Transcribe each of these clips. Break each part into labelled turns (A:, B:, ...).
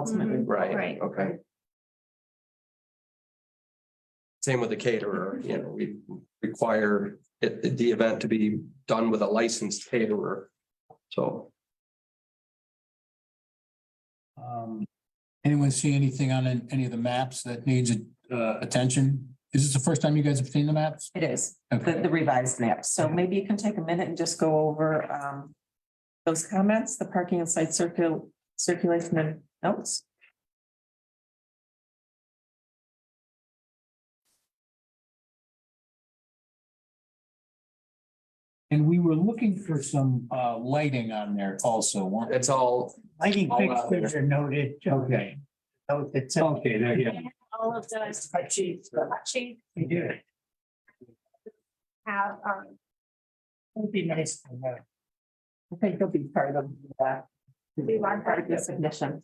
A: ultimately.
B: right,
C: Right.
B: okay. Same with the caterer, you know, we require it, the event to be done with a licensed caterer. So,
D: Um, anyone see anything on an- any of the maps that needs, uh, attention? Is this the first time you guys have seen the maps?
A: It is, the,
D: Okay.
A: the revised map. So maybe you can take a minute and just go over, um, those comments, the parking and site circul, circulation and notes.
D: And we were looking for some, uh, lighting on there also, weren't
B: it's all,
E: Lighting
B: All out
E: fixtures are noted.
D: Okay.
E: Note that's
D: Okay, there you go.
C: All of those
E: Spreadsheets, but
C: actually
E: we do it.
C: have, um,
E: It'd be nice. to know. I think they'll be part of that.
C: we want
A: Part of the submission.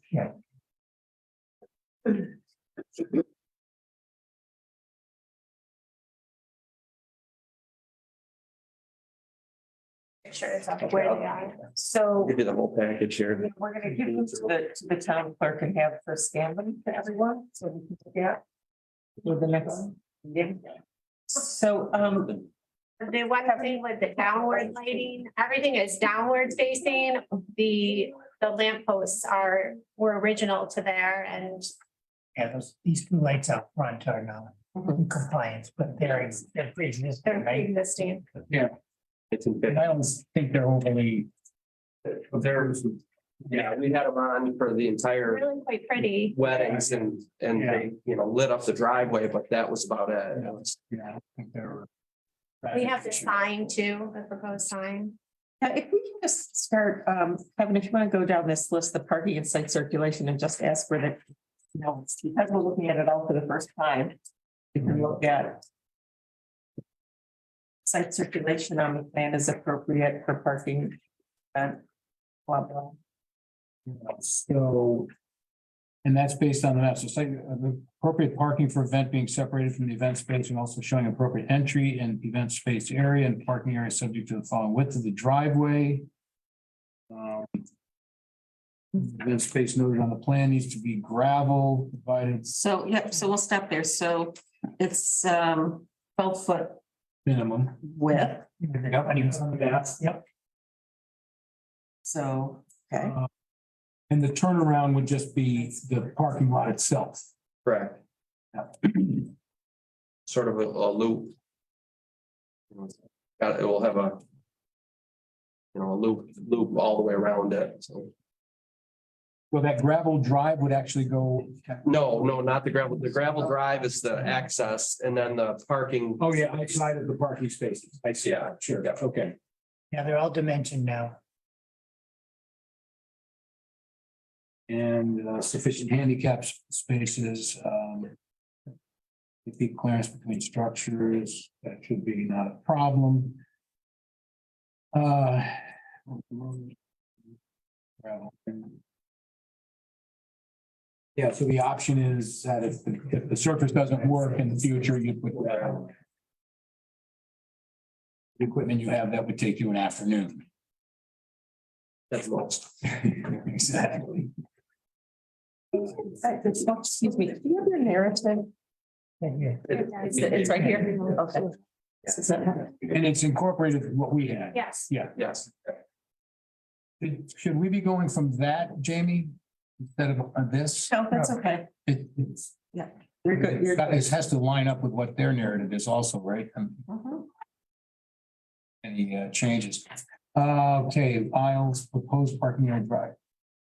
C: pictures of where they are. So
B: give you the whole package here.
A: We're gonna give them to the, to the town clerk and have her scan them to everyone, so we can take out. For the next. meeting. So, um,
C: the one thing with the downward lighting, everything is downward facing. The, the lamp posts are, were original to there and
E: Yeah, those, these two lights out front are not
A: Mm-hmm.
E: in compliance, but they're, in- they're
C: they're
E: pre-existing, right?
C: pre-existing.
B: It's in.
E: And I don't think they're overly,
B: There's, yeah, we had them on for the entire
C: Really quite pretty.
B: weddings and, and they, you know, lit up the driveway, but that was about it.
D: Yeah, it's- yeah, I don't think they're-
C: We have the sign too, the proposed sign.
A: now if we can just start, um, Kevin, if you wanna go down this list, the parking and site circulation and just ask for the. You know, because we're looking at it all for the first time. We can look at. Site circulation on the plan is appropriate for parking. And blah, blah.
D: So. And that's based on the map, so site, uh, the appropriate parking for event being separated from the event space and also showing appropriate entry and event space area and parking area subject to the following width of the driveway. Um, Event space noted on the plan needs to be gravel, provided
A: So, yep, so we'll stop there. So it's um twelve foot
D: minimum.
A: width,
E: Yep, and even some of that, yep.
A: so, okay.
D: Uh, And the turnaround would just be the parking lot itself.
B: Correct. Sort of a, a loop. Got, it will have a. You know, a loop, loop all the way around it, so.
D: Well, that gravel drive would actually go.
B: No, no, not the gravel. The gravel drive is the access and then the parking.
D: Oh, yeah, outside of the parking spaces. I see.
B: Yeah,
D: Sure,
B: yeah.
D: okay.
E: Yeah, they're all dimensioned now.
D: and uh, sufficient handicap s- spaces, um. if the clearance between structures, that should be not a problem. Uh. gravel. Yeah, so the option is that if the, if the surface doesn't work in the future, you put that on. The Equipment you have, that would take you an afternoon.
B: That's most.
D: Exactly.
A: Uh, it's- oh, Excuse me, do you have your narrative?
E: Thank you.
A: It's, it's right here. Okay. This is it.
D: And it's incorporated with what we had.
C: Yes,
B: Yes,
D: Should- Should we be going from that, Jamie, instead of uh, this?
A: No, Oh, that's okay.
D: It- it's-
A: You're good, you're.
D: That is- has to line up with what their narrative is also, right? Um,
A: Mhm.
D: Any uh, changes? Uh, Okay, aisles, proposed parking yard drive.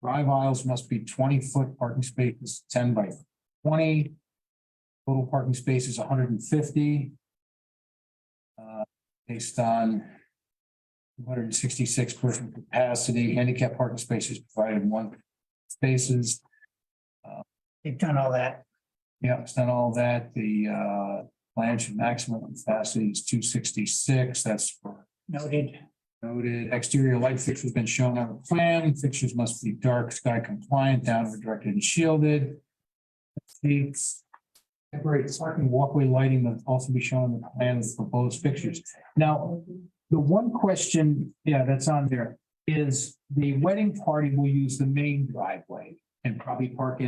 D: Drive aisles must be twenty foot, parking spaces ten by twenty. Total parking space is hundred and fifty. Uh, Based on one hundred and sixty-six person capacity, handicap parking spaces provided in one spaces.
E: They've done all that.
D: Yeah, it's done all that. The uh plan should maximum capacity is two sixty-six. That's for
E: Noted.
D: noted. Exterior light fixtures been shown on the plan. Fixtures must be dark sky compliant, downward directed and shielded. Seats. Temporary parking walkway lighting must also be shown on the plan with proposed fixtures. Now, the one question, yeah, that's on there is the wedding party will use the main driveway. and probably park